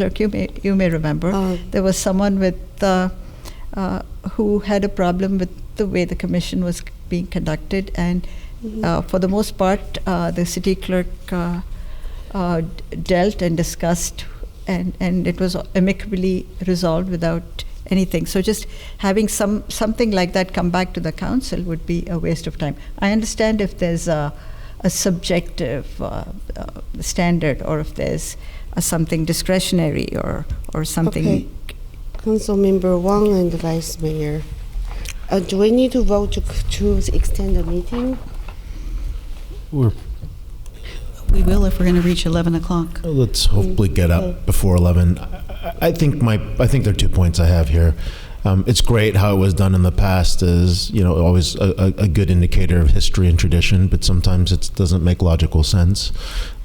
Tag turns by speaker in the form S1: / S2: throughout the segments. S1: clerk, you may, you may remember,
S2: Uh,
S1: there was someone with, uh, uh, who had a problem with the way the commission was being conducted, and uh, for the most part, uh, the city clerk uh, uh, d- dealt and discussed, and, and it was amicably resolved without anything. So just having some something like that come back to the council would be a waste of time. I understand if there's a, a subjective uh, uh, standard, or if there's uh, something discretionary, or or something.
S2: Okay. Councilmember Wang and Vice Mayor. Uh, do we need to vote to, to extend the meeting?
S3: We're,
S4: We will if we're going to reach 11 o'clock.
S3: let's hopefully get up before 11. I, I- I think my, I think there are two points I have here. Um, it's great how it was done in the past is, you know, always a, a, a good indicator of history and tradition, but sometimes it doesn't make logical sense.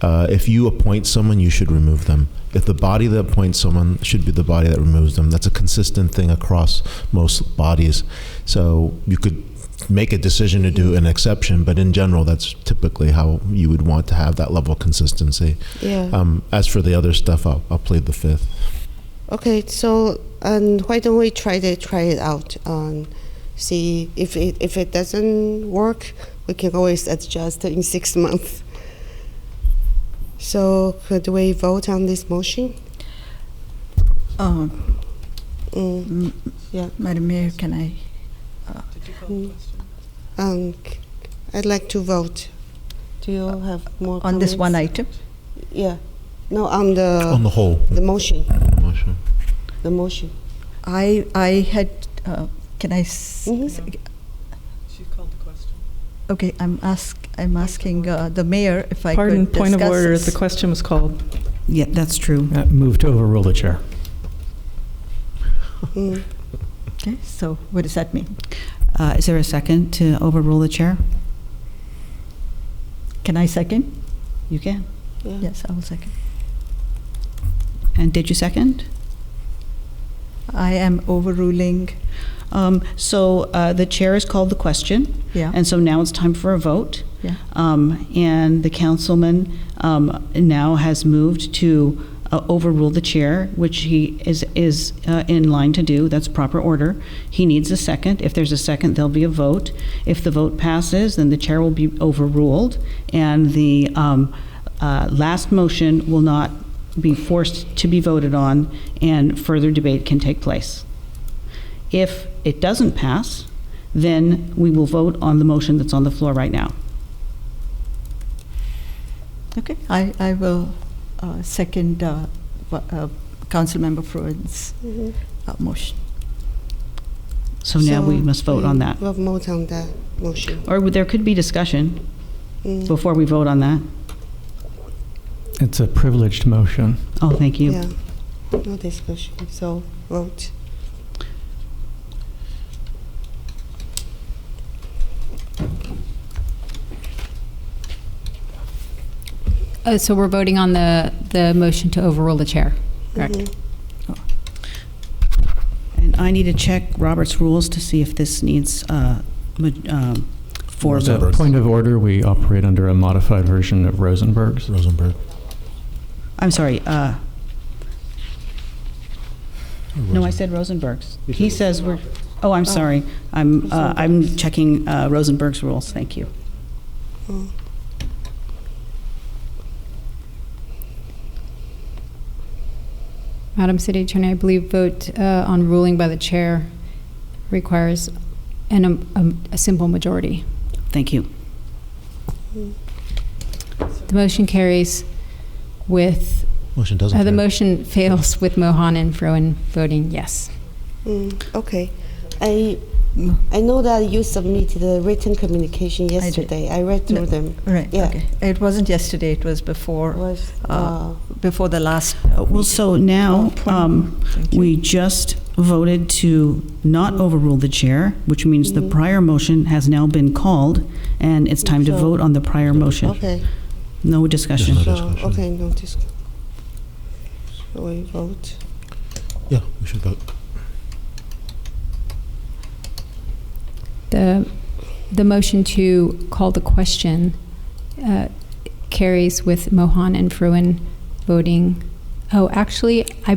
S3: Uh, if you appoint someone, you should remove them. If the body that appoints someone should be the body that removes them. That's a consistent thing across most bodies. So you could make a decision to do an exception, but in general, that's typically how you would want to have that level of consistency.
S2: Yeah.
S3: Um, as for the other stuff, I'll, I'll plead the fifth.
S2: Okay, so um, why don't we try to try it out? Um, see if it, if it doesn't work, we can always adjust in six months. So could we vote on this motion?
S1: Um,
S2: Mm,
S1: M-
S2: Yeah.
S1: Madam Mayor, can I?
S2: um, c- I'd like to vote. Do you have more
S1: On this one
S2: comments?
S1: item?
S2: Yeah. No, on the
S3: On the whole,
S2: the motion.
S3: motion.
S2: The motion.
S1: I, I had, uh, can I? s-
S2: Mhm.
S1: s-
S5: She called the question.
S1: Okay, I'm ask, I'm asking uh, the mayor if I could
S5: Pardon,
S1: discuss this.
S5: point of order, the question was called.
S4: Yeah, that's true.
S6: Uh, Move to overrule the chair.
S2: Mm.
S1: Okay, so what does that mean?
S4: Uh, Is there a second to overrule the chair?
S1: Can I second?
S4: You can.
S2: Yeah.
S1: Yes, I will second.
S4: And did you second?
S1: I am overruling,
S4: Um, So uh, the chair has called the question,
S1: yeah,
S4: and so now it's time for a vote.
S1: Yeah.
S4: Um, And the councilman um, now has moved to uh, overrule the chair, which he is, is uh, in line to do. That's proper order. He needs a second. If there's a second, there'll be a vote. If the vote passes, then the chair will be overruled, and the um, uh, last motion will not be forced to be voted on, and further debate can take place. If it doesn't pass, then we will vote on the motion that's on the floor right now.
S1: okay. I, I will uh, second uh, wha- uh, Councilmember Fruin's
S2: Mhm.
S1: uh, motion.
S4: So now we must vote on that.
S2: We'll vote mm, on that motion.
S4: Or there could be discussion
S2: Mm.
S4: before we vote on that.
S6: It's a privileged motion.
S4: Oh, thank you.
S2: Yeah, no discussion, so vote.
S7: Uh, So we're voting on the, the motion to overrule the chair. Correct.
S2: Mhm.
S4: And I need to check Robert's rules to see if this needs uh, ma- um, four
S3: Rosenberg.
S4: votes.
S6: Point of order, we operate under a modified version of Rosenberg's.
S3: Rosenberg.
S4: I'm sorry, uh, no, I said Rosenberg's. He says we're, oh, I'm sorry. I'm, uh, I'm checking uh, Rosenberg's rules, thank you.
S7: Madam City Attorney, I believe vote uh, on ruling by the chair requires an, um, a simple majority.
S4: Thank you.
S7: The motion carries with,
S3: Motion doesn't.
S7: uh, the
S3: carry.
S7: motion fails with Mohan and Froen voting yes.
S2: Mm, Okay, I, I know that you submitted a written communication
S1: did.
S2: yesterday. I read through
S1: No.
S2: them.
S1: Right,
S2: Yeah.
S1: okay. It wasn't yesterday, it was before,
S2: Was,
S1: Uh,
S2: uh,
S1: before the last. uh,
S4: Well,
S1: meeting.
S4: so now,
S1: Oh,
S4: um,
S1: Thank you.
S4: We just voted to not overrule the chair, which means the
S2: Mhm.
S4: prior motion has now been called, and it's time to
S2: So-
S4: vote on the prior motion.
S2: okay,
S4: No discussion.
S3: No
S2: so,
S3: discussion.
S2: okay, no discussion. We vote.
S3: Yeah, we should vote.
S7: The, the motion to call the question uh, carries with Mohan and Froen voting Oh, actually, I